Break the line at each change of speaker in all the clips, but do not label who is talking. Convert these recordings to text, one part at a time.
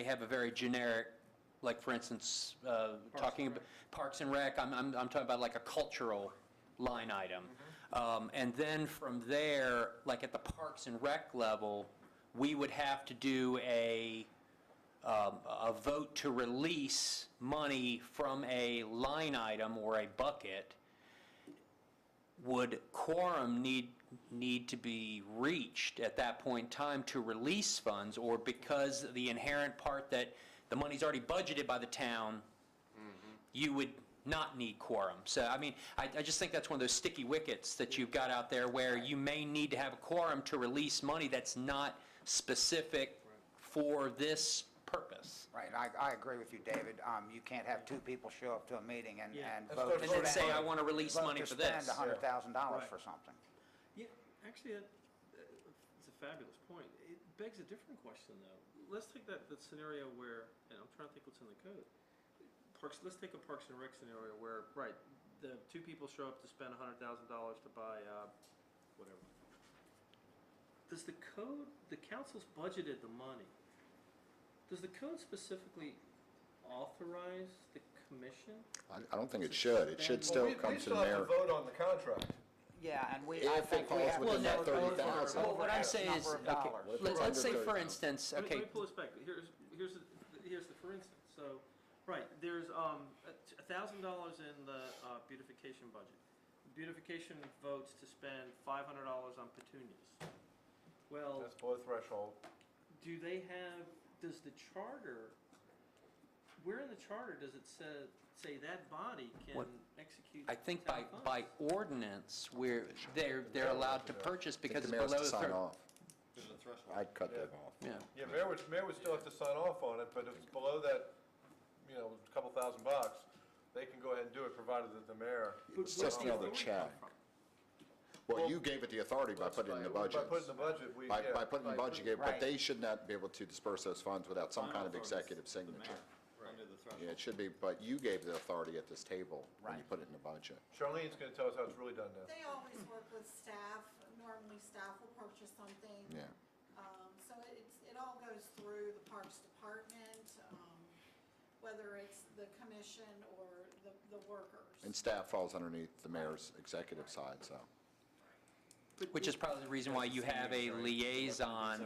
they have a very generic, like, for instance, uh, talking, about Parks and Rec, I'm, I'm, I'm talking about like a cultural line item. Um, And then from there, like at the Parks and Rec level, we would have to do a, um, a vote to release money from a line item or a bucket. Would quorum need, need to be reached at that point in time to release funds? Or because the inherent part that the money's already budgeted by the town, you would not need quorum. So, I mean, I, I just think that's one of those sticky wickets that you've got out there where you may need to have a quorum to release money that's not specific for this purpose.
Right, I, I agree with you, David. Um, you can't have two people show up to a meeting and,
Yeah.
and
Let's
vote.
go to
to
vote. And then
say,
spend-
"I wanna release
vote
money for this."
spend a hundred thousand dollars
Right.
for something.
Yeah, actually, that, that- it's a fabulous point. It begs a different question, though. Let's take that, that scenario where, and I'm trying to think what's in the code. Parks, let's take a Parks and Rec scenario where, right, the two people show up to spend hundred thousand dollars to buy, uh, whatever. Does the code, the council's budgeted the money. Does the code specifically authorize the commission?
I I don't think it should. It should
Well,
still come to the mayor.
We still have to vote on the contract.
Yeah, and we, I
If it
think we
falls
have to
within that
vote
thirty
over,
thousand.
Well,
over
what I'm
X
saying is,
number of
okay,
dollars.
let's, let's say for instance,
Let me- Let
okay,
me pull this back. Here's, here's, the- here's the, for instance, so, right, there's, um, a thousand dollars in the uh, beautification budget. Beautification votes to spend five hundred dollars on petunias. Well,
That's below threshold.
do they have, does the charter, where in the charter does it say, say that body
What-
can execute
I think by,
town
by
funds?
ordinance, we're, they're, they're allowed to purchase
I think
because it's
the mayor has
below
to
the
sign
third.
off.
There's a threshold.
I'd cut that off.
Yeah,
Yeah, mayor would, mayor would still have to sign off on it, but if it's below that, you know, couple thousand bucks, they can go ahead and do it, provided that the mayor.
It's just another check. Well, you gave it the authority by putting it in the
By putting
budget.
the budget, we,
By,
yeah.
by putting the budget, you gave,
Right.
but they should not be able to disperse those funds without some kind of executive
The mayor,
signature.
Under the threshold.
Yeah, it should be, but you gave the authority at this table when you
Right.
put it in the budget.
Charlene's gonna tell us how it's really done now.
They always work with staff, normally staff will purchase something.
Yeah.
Um, so it's, it all goes through the Parks Department, um, whether it's the commission or the, the workers.
And staff falls underneath the mayor's executive side, so.
which is probably the reason why you have a liaison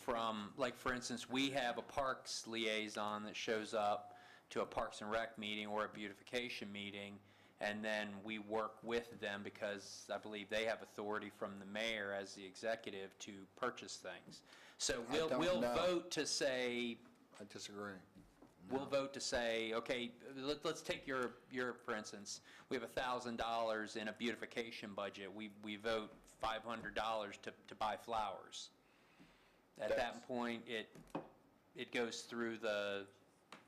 from, like, for instance, we have a parks liaison that shows up to a Parks and Rec meeting or a beautification meeting, and then we work with them because I believe they have authority from the mayor as the executive to purchase things. So we'll,
don't
we'll
know.
vote to say,
I disagree.
We'll vote to say, okay, let, let's take your, your, for instance, we have a thousand dollars in a beautification budget. We, we vote five hundred dollars to, to buy flowers. At that
That's-
point, it, it goes through the,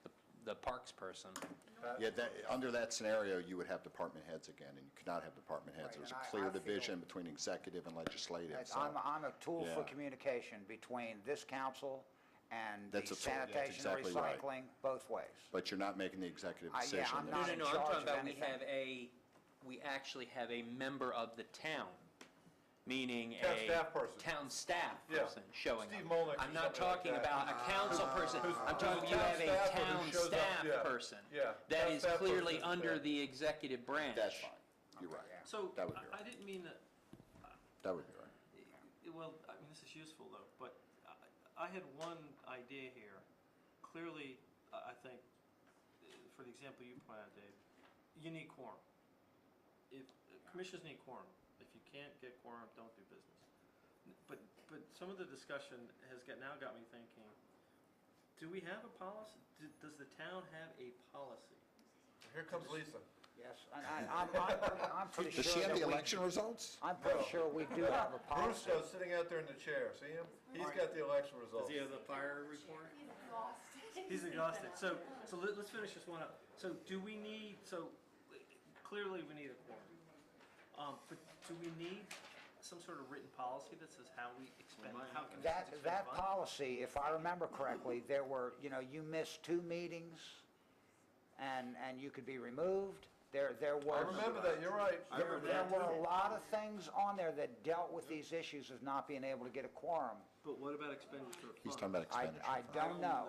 the- the parks person.
Yeah, that, under that scenario, you would have department heads again, and you could not have department heads.
Right,
There's a
and I- I
clear
feel-
division between executive and legislative,
That's-
so.
I'm, I'm a tool for
Yeah.
communication between this council and the
That's a tool. That's
sanitation and
exactly right.
recycling, both ways.
But you're not making the executive
I- yeah,
decision.
I'm
No,
not
no,
in
no, I'm
charge
talking
of
about we
anything.
have a, we actually have a member of the town, meaning a.
Town staff person.
Town staff
Yeah.
person showing up.
Steve Molnick or
I'm not
somebody like
talking
that.
about a council person,
Who's-
I'm talking
who's
you have a town
town staff or who shows up,
staff
yeah.
person.
Yeah,
That
town
is
staff
clearly
person,
under
yeah.
the executive branch.
That's fine. You're right.
yeah.
So,
That would be
I-
right.
I didn't mean that,
That would be right.
I- Well, I mean, this is useful though, but I, I had one idea here. Clearly, I I think, uh, for the example you pointed out, Dave, you need quorum. If, uh, commissions need quorum. If you can't get quorum, don't do business. N- But, but some of the discussion has got, now got me thinking, do we have a policy? D- Does the town have a policy?
Here comes Lisa.
Yes, and I, I'm, I'm, I'm pretty sure
Does she have
that
the
we-
election results?
I'm pretty
No.
sure we do have a policy.
Bruce though, sitting out there in the chair, see him? He's got the election results.
the fire report?
He's exhausted.
He's exhausted. So, so let, us finish this one up. So do we need, so clearly we need a quorum. Um, but do we need some sort of written policy that says how we expend, how commissions
That,
expend
that
funds?
policy, if I remember correctly, there were, you know, you missed two meetings and, and you could be removed. There, there
I
were,
remember that, you're right.
there were a lot of things on there that dealt with these issues of not being able to get a quorum.
But what about expenditure of funds?
He's talking about
I,
expenditure.
I don't know.